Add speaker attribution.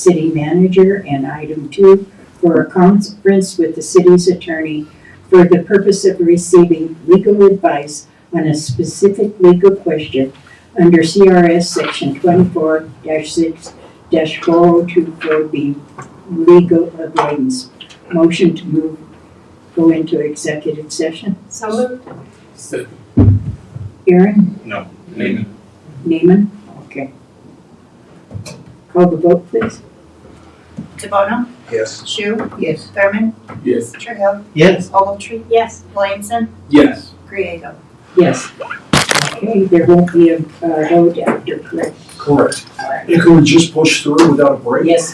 Speaker 1: city manager, and item two, for a conference with the city's attorney for the purpose of receiving legal advice on a specific legal question under CRS section twenty-four six four oh two four B, legal avoidance. Motion to move, go into executive session.
Speaker 2: So moved.
Speaker 1: Aaron,
Speaker 3: Neiman.
Speaker 1: Neiman, okay. Call the vote, please.
Speaker 4: DeBono,
Speaker 3: Yes.
Speaker 4: Shu,
Speaker 1: Yes.
Speaker 4: Thurman,
Speaker 3: Yes.
Speaker 4: Trahell,
Speaker 5: Yes.
Speaker 4: Ogletree,
Speaker 2: Yes.
Speaker 4: Williamson,
Speaker 3: Yes.
Speaker 4: Griego.
Speaker 1: Yes. Okay, there won't be a uh, vote after, correct?
Speaker 6: Correct. It could just push through without a break.
Speaker 1: Yes.